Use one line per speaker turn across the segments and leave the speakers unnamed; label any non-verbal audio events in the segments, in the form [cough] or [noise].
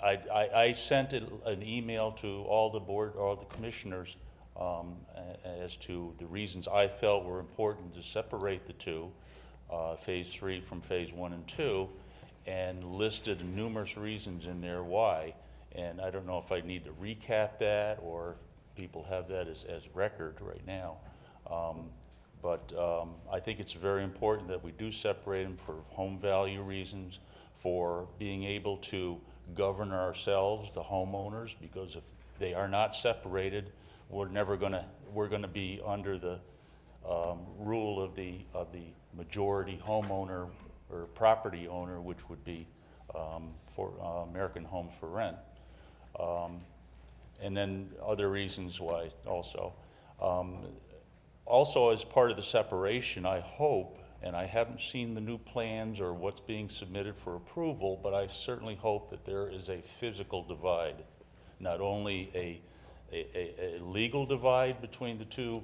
I, I, I sent it- an email to all the board, all the commissioners, um, a- as to the reasons I felt were important to separate the two, uh, phase three from phase one and two, and listed numerous reasons in there why. And I don't know if I need to recap that, or people have that as, as record right now. Um, But um, I think it's very important that we do separate them for home value reasons, for being able to govern ourselves, the homeowners, because if they are not separated, we're never gonna, we're gonna be under the um, rule of the, of the majority homeowner or property owner, which would be um, for uh, American Homes for Rent Um, and then other reasons why also. Um, Also, as part of the separation, I hope, and I haven't seen the new plans or what's being submitted for approval, but I certainly hope that there is a physical divide, not only a, a, a- a legal divide between the two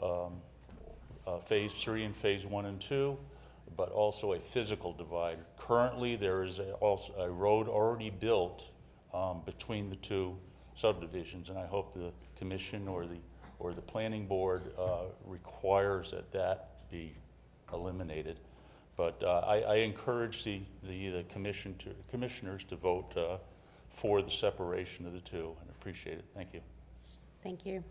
uh, Phase 3 and Phase 1 and 2, but also a physical divide. Currently, there is a- also a road already built um, between the two subdivisions, and I hope the commission or the, or the planning board uh, requires that that be eliminated. But uh, I, I encourage the, the the commission to, commissioners to vote uh, for the separation of the two, and appreciate it. Thank you.
Thank you.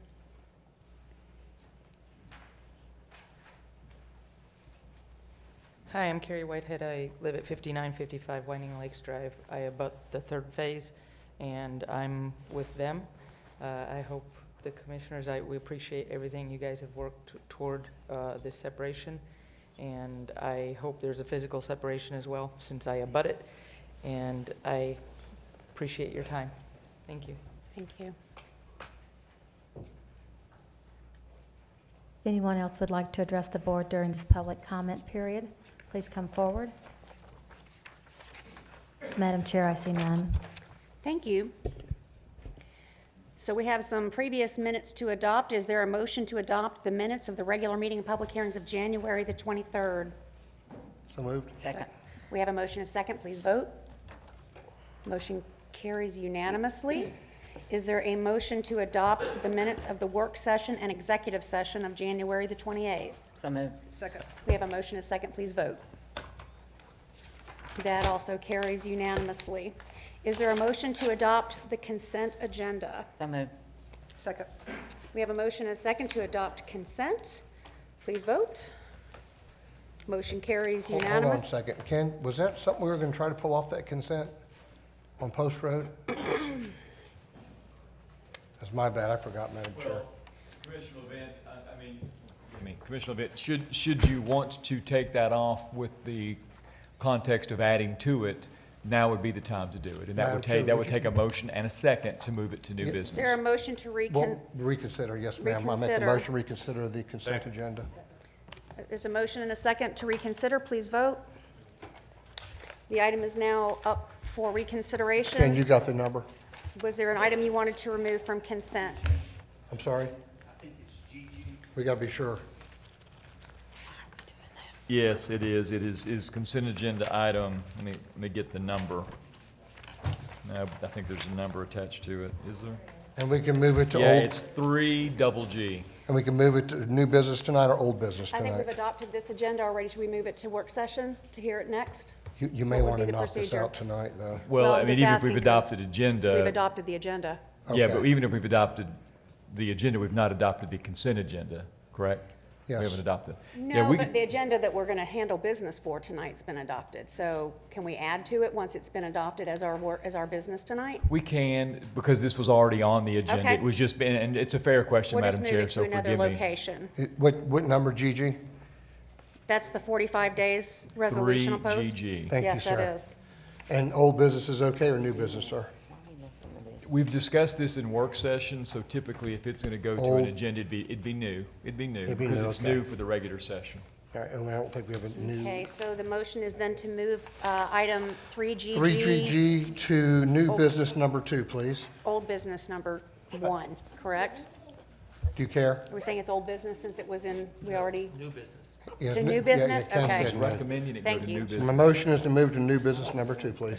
Hi, I'm Carrie Whitehead. I live at 5955 Whining Lakes Drive. I abut the third phase, and I'm with them. Uh, I hope the commissioners, I, we appreciate everything you guys have worked toward uh, this separation, and I hope there's a physical separation as well, since I abut it, and I appreciate your time. Thank you.
Thank you.
If anyone else would like to address the board during this public comment period, please come forward. Madam Chair, I see none.
Thank you. So we have some previous minutes to adopt. Is there a motion to adopt the minutes of the regular meeting and public hearings of January the 23rd?
So moved.
Second. We have a motion, a second, please vote. Motion carries unanimously. Is there a motion to adopt the minutes of the work session and executive session of January the 28th?
So moved.
We have a motion, a second, please vote. That also carries unanimously. Is there a motion to adopt the consent agenda?
So moved.
Second. We have a motion, a second, to adopt consent. Please vote. Motion carries
Hold- Hold on a
unanimous.
second. Ken, was that something we were going to try to pull off that consent on Post
[coughs]
Road? That's my bad. I forgot, Madam Chair.
Well, Commissioner Levent, I, I mean, I mean, Commissioner Levent, should, should you want to take that off with the context of adding to it, now would be the time to do it. And that
Madam
would
Chair,
take, that
would
would
you-
take a motion and a second to move it to new
Yes.
Is there
business.
a motion to recon,
Well, reconsider, yes, ma'am. I make a
Reconsider.
motion, reconsider the consent agenda.
there's a motion and a second to reconsider, please vote. The item is now up for
Ken, you
reconsideration.
got the number?
Was there an item you wanted to remove from consent?
I'm sorry? I think it's GG. We got to be sure.
Yes, it is. It is, is consent agenda item. Let me, let me get the number. No, I think there's a number attached to it. Is there?
And we can move it to
Yeah,
old,
it's three double G.
and we can move it to new business tonight or old business
I think we've
tonight.
adopted this agenda already. Should we move it to work session to hear it next?
You, you may
what would
want
be
to
the
knock this
procedure?
out tonight, though.
Well,
Well,
I
I'm
mean,
just
even if
asking
we've
'cause
adopted agenda.
We've adopted the agenda.
Yeah, but
Okay.
even if we've adopted the agenda, we've not adopted the consent agenda, correct? We
Yes.
haven't adopted. Yeah,
No,
we
but
can-
the agenda that we're going to handle business for tonight's been adopted. So can we add to it once it's been adopted as our work, as our business tonight?
We can, because this was already on the agenda.
Okay.
It was just, been- and it's a fair question,
We'll just
Madam
move
Chair,
it
so
to another
forgive me.
location.
It- What, what number, GG?
That's the 45 days
Three
resolution opposed?
GG.
Thank you,
Yes, that
sir.
is.
And old business is okay or new business, sir?
We've discussed this in work session, so typically if it's going to go to
Old.
an agenda, it'd be, it'd be new. It'd be new,
Oh. It'd be
because
new,
it's
okay.
new for the regular session.
All right, and I don't think we have a new,
Okay, so the motion is then to move uh, item 3GG.
3GG to new
Oh.
business number two, please.
Old business number one, correct?
Do you care?
Are we saying it's old business since it was in, we already?
Yeah,
To
n-
new
yeah, yeah,
business?
Ken
Okay.
said no.
Recommending it go
Thank
to
you.
new
My
business.
motion is to move to new business number two, please.